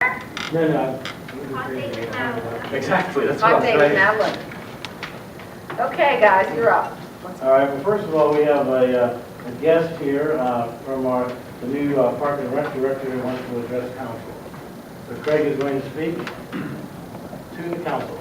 No, no. Hot I'm- take it out. Exactly, that's what Hot I'm take saying. now look. Okay, guys, you're up. Let's- All right, well, first of all, we have a, uh, a guest here uh, from our, the new uh, Park and Rec Director who wants to address council. So Craig is going to speak to the council.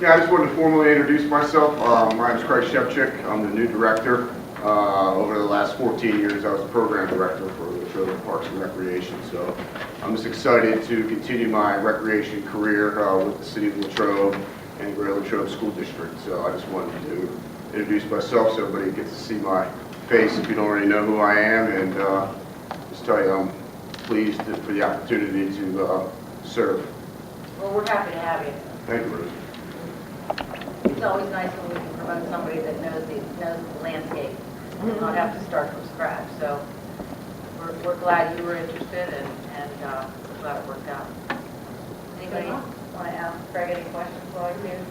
Yeah, I just wanted to formally introduce myself. Um, My name is Craig Shevchik. I'm the new director. Uh, Over the last 14 years, I was program director for the Sherwood Parks and Recreation. So I'm just excited to continue my recreation career uh, with the city of Latrobe and Greater Latrobe School District. So I just wanted to introduce myself so everybody gets to see my face if you don't already know who I am. And uh, just tell you, I'm pleased for the opportunity to uh, serve. Well, we're happy to have you. Thank you, Ruth. It's always nice when we can promote somebody that knows the, knows the landscape, and not have to start from scratch, so we're, we're glad you were interested and, and, uh, we're glad it worked out. Anybody want to ask Craig any questions while you're here?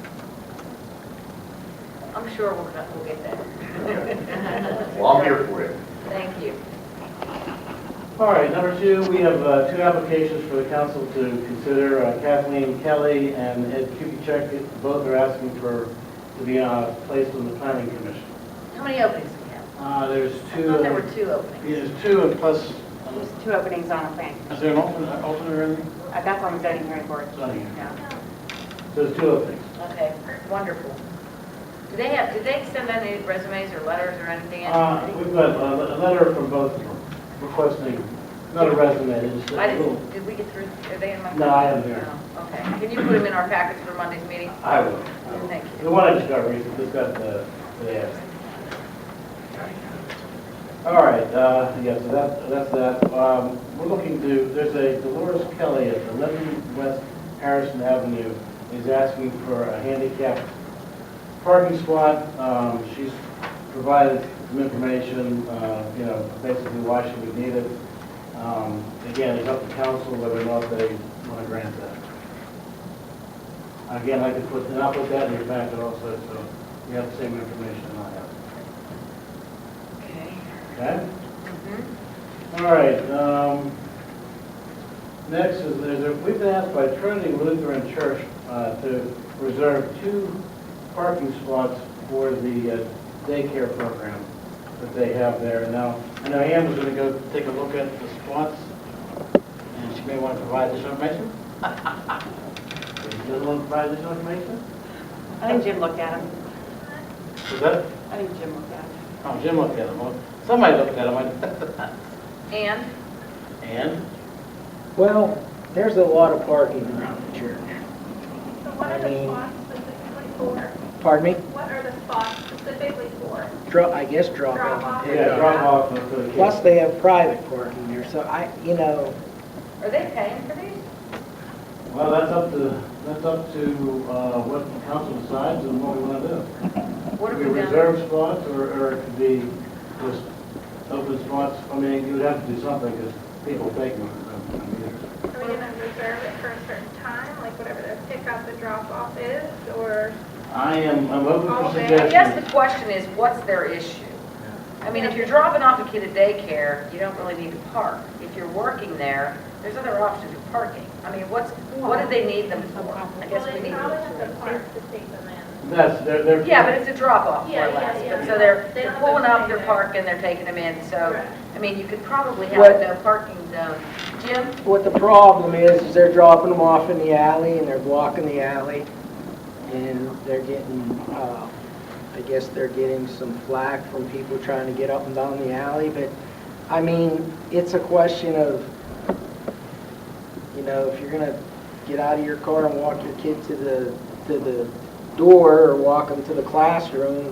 I'm sure we're gonna, we'll get there. Well, I'm here for you. Thank you. All right, number two, we have uh, two applications for the council to consider. Uh, Kathleen Kelly and Ed Kukichek, both are asking for, to be uh, placed on the planning commission. How many openings do we have? Uh, There's I two, thought there were yeah, two openings. there's two and plus, There's two openings on a plan. is there an alternate, alternate or anything? Uh, That's on the zoning hearing board. Zoning. Yeah. So There's two openings. Okay, wonderful. Do they have, did they send out any resumes or letters or anything? Uh, We've got a a letter from both requesting, not a resume, it's a I little... didn't, did we get through, are they in my? No, I am there. No, Okay, can you put them in our packets for Monday's meeting? I will. Thank you. The one I just got recently, just got the, the ad. All right, uh, yeah, so that, that's that. Um, We're looking to, there's a Dolores Kelly at 11 West Harrison Avenue is asking for a handicap parking spot. Um, She's provided some information, uh, you know, basically why she would need it. Um, Again, it's up to council whether or not they want to grant that. Again, I could put, and I'll put that in your packet also, so you have the same information I have. Okay. Okay? Mhm. All right, um, next is, there's a- we've been asked by Trinity Lutheran Church uh, to reserve two parking spots for the uh, daycare program that they have there. Now, I know Ann was gonna go take a look at the spots, and she may want to provide this information. Does want to provide this information? I think Jim looked at them. Is that? I think Jim looked at them. Oh, Jim looked at them. Well, Somebody looked at them. And, And? Well, there's a lot of parking around the church. So what are the spots specifically for? Pardon me? What are the spots specifically for? Dro- I guess drop off. Drop off? Yeah, drop off and put a Plus, kid. they have private parking there, so I, you know, are they paying for these? Well, that's up to, that's up to uh, what the council decides and what we want to do. What Could have be we done? reserved spots or, or it could be just open spots. I mean, you would have to do something because people take them. I mean, Are we going to reserve it for a certain time, like whatever the pickup and drop off is, or? I am, I'm open for Okay. Oh, I guess suggestions. the question is, what's their issue? I mean, if you're dropping off a kid at daycare, you don't really need to park. If you're working there, there's other options of parking. I mean, what's, what do they need them for? I guess we need Well, they probably have them the for. park to take them in. That's, they're, they're. Yeah, but it's a drop-off, more Yeah, or yeah, less, yeah. but so they're, they're They don't have pulling to up pay their it. park and they're taking them in, so, Correct. I mean, you could probably have What- a no parking zone. Jim, what the problem is, is they're dropping them off in the alley and they're blocking the alley. And they're getting, uh, I guess they're getting some flack from people trying to get up and down the alley. But, I mean, it's a question of, you know, if you're gonna get out of your car and walk your kid to the, to the door or walk them to the classroom,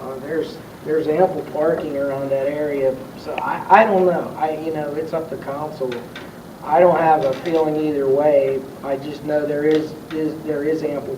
uh, there's, there's ample parking around that area. So I, I don't know. I, you know, it's up to council. I don't have a feeling either way. I just know there is, is, there is ample